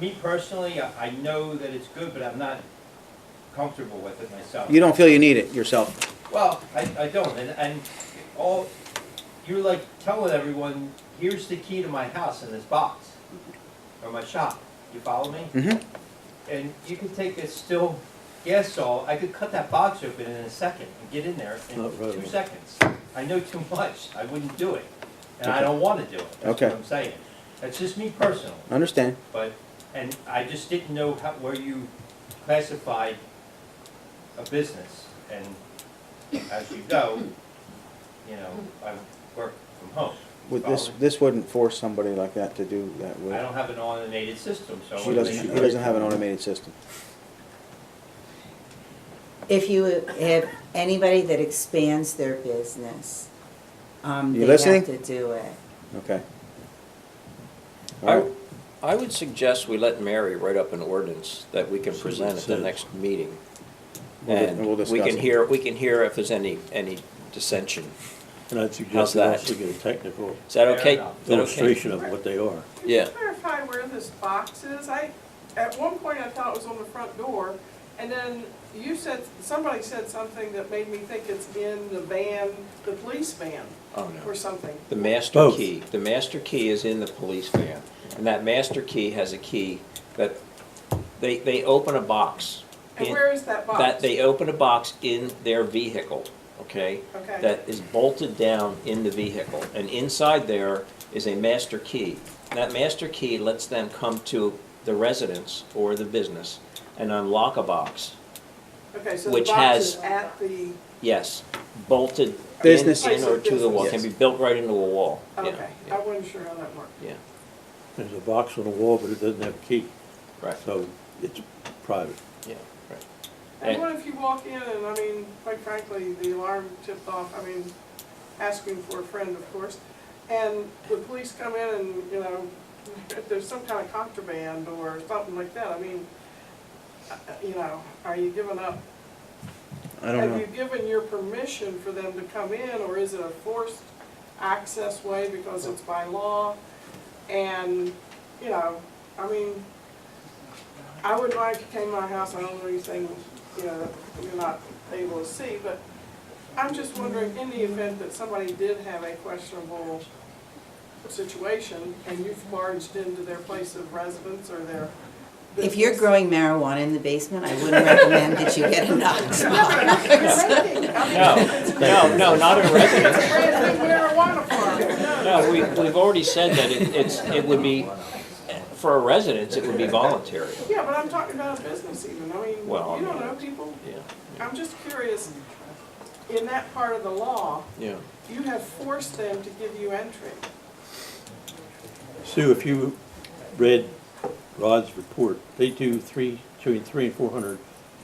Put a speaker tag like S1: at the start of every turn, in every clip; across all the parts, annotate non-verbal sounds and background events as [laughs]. S1: Me personally, I I know that it's good, but I'm not comfortable with it myself.
S2: You don't feel you need it yourself.
S1: Well, I, I don't, and, and all, you're like telling everyone, here's the key to my house in this box, or my shop, you follow me?
S2: Mhm.
S1: And you can take a still gas saw, I could cut that box open in a second and get in there in
S3: Not really.
S1: two seconds. I know too much, I wouldn't do it, and I
S2: Okay.
S1: don't wanna do it, that's
S2: Okay.
S1: what I'm saying. That's just me personally,
S2: Understand?
S1: but, and I just didn't know how, where you classified a business, and as you go, you know, I work from home.
S2: Would this,
S1: Following.
S2: this wouldn't force somebody like that to do that, would
S1: I
S2: it?
S1: don't have an automated system, so.
S2: She doesn't, he doesn't have an automated system.
S4: If you have anybody that expands their business, um,
S2: You
S4: they
S2: listening?
S4: have to do it.
S2: Okay. All
S5: I,
S2: right,
S5: I would suggest we let Mary write up an ordinance that we can
S3: See what
S5: present
S3: it
S5: at the
S3: says.
S5: next meeting.
S2: We'll di-
S5: And
S2: we'll
S5: we
S2: discuss
S5: can
S2: it.
S5: hear, we can hear if there's any, any dissension.
S3: And I'd
S5: How's
S3: suggest we
S5: that?
S3: also get a technical
S5: Is that
S1: Fair
S5: okay?
S1: enough.
S5: Is that okay?
S3: illustration of what they are.
S6: Can
S5: Yeah.
S6: you clarify where this box is? I, at one point I thought it was on the front door, and then you said, somebody said something that made me think it's in the van, the police van,
S5: Oh,
S6: or
S5: no.
S6: something.
S5: The master
S3: Both.
S5: key, the master key is in the police van. And that master key has a key that, they, they open a box.
S6: And
S5: in-
S6: where is that box?
S5: That, they open a box in their vehicle, okay?
S6: Okay.
S5: that is bolted down in the vehicle, and inside there is a master key. That master key lets them come to the residence or the business and unlock a box,
S6: Okay, so the
S5: which
S6: box is
S5: has-
S6: at the,
S5: yes, bolted in,
S2: Business.
S5: in or to the wall, can be built right into a wall. Yeah,
S6: okay,
S5: yeah,
S6: I wasn't sure how that worked.
S5: Yeah,
S3: There's a box on the wall, but it doesn't have a key,
S5: right,
S3: so it's private.
S5: yeah, right.
S6: And
S5: Eh.
S6: what if you walk in and, I mean, quite frankly, the alarm tipped off, I mean, asking for a friend, of course, and the police come in and, you know, [laughs] if there's some kind of contraband or something like that, I mean, uh, you know, are you giving up?
S2: I don't
S6: Have
S2: know.
S6: you given your permission for them to come in, or is it a forced access way because it's by law? And, you know, I mean, I would like, if you came to my house, I don't know anything, you know, that you're not able to see, but I'm just wondering, in the event that somebody did have a questionable situation, and you've barged into their place of residence or their
S4: If you're
S6: business-
S4: growing marijuana in the basement, I wouldn't recommend that you get a
S6: [laughs] You're
S4: nut.
S6: renting. I mean,
S5: No,
S6: it's-
S5: no, no, not a residence.
S6: It's a brand new marijuana farm.
S5: No, we, we've already said that it, it's, it would be, for a residence, it would be voluntary,
S6: Yeah, but I'm talking about a business even, I mean, you
S5: Well,
S6: don't
S5: I mean-
S6: know people,
S5: yeah,
S6: I'm just curious, in that part of the law,
S5: yeah.
S6: you have forced them to give you entry.
S3: Sue, if you read Rod's report, they do three, between three and four hundred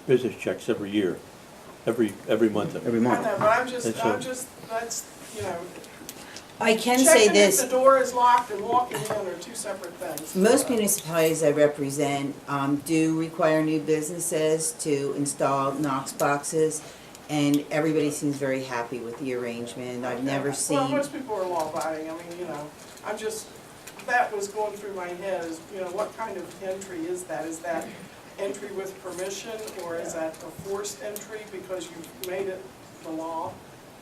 S3: business checks every year, every, every month.
S2: Every
S6: I know,
S2: month.
S6: but I'm
S3: That's
S6: just, I'm
S3: right.
S6: just, that's, you know,
S4: I can say
S6: checking if
S4: this,
S6: the door is locked and walking in are two separate things.
S4: most municipalities I represent, um, do require new businesses to install Knox boxes, and everybody seems very happy with the arrangement. I've never
S6: Well,
S4: seen,
S6: most people are law abiding, I mean, you know, I'm just, that was going through my head is, you know, what kind of entry is that? Is that entry with permission or is that a forced entry because you've made it the law?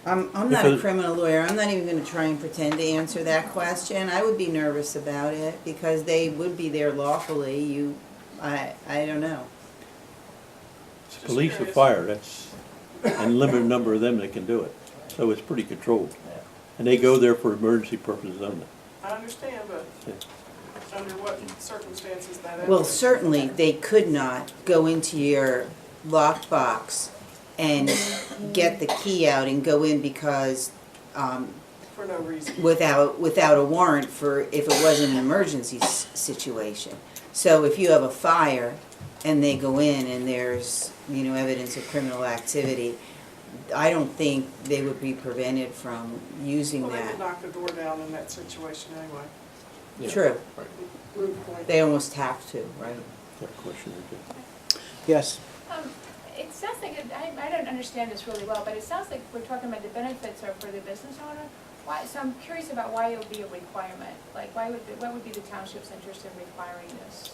S4: I'm, I'm not a
S3: Because-
S4: criminal lawyer, I'm not even gonna try and pretend to answer that question. I would be nervous about it, because they would be there lawfully, you, I, I don't know.
S3: It's Police or fire, that's unlimited number of them that can do it, so it's pretty controlled. And they go there for emergency purposes only.
S6: I understand, but under what circumstances that entry?
S4: Well, certainly, they could not go into your lockbox and get the key out and go in because, um,
S6: For no reason.
S4: without, without a warrant for, if it wasn't an emergency s- situation. So if you have a fire and they go in and there's, you know, evidence of criminal activity, I don't think they would be prevented from using
S6: Well, they would
S4: that.
S6: knock the door down in that situation anyway.
S5: yeah.
S4: True,
S6: Moot point.
S4: they almost have to, right?
S3: That question I did.
S2: Yes,
S7: Um, It sounds like, it- I, I don't understand this really well, but it sounds like we're talking about the benefits are for the business owner. Why, so I'm curious about why it would be a requirement, like why would, the- what would be the township's interest in requiring this?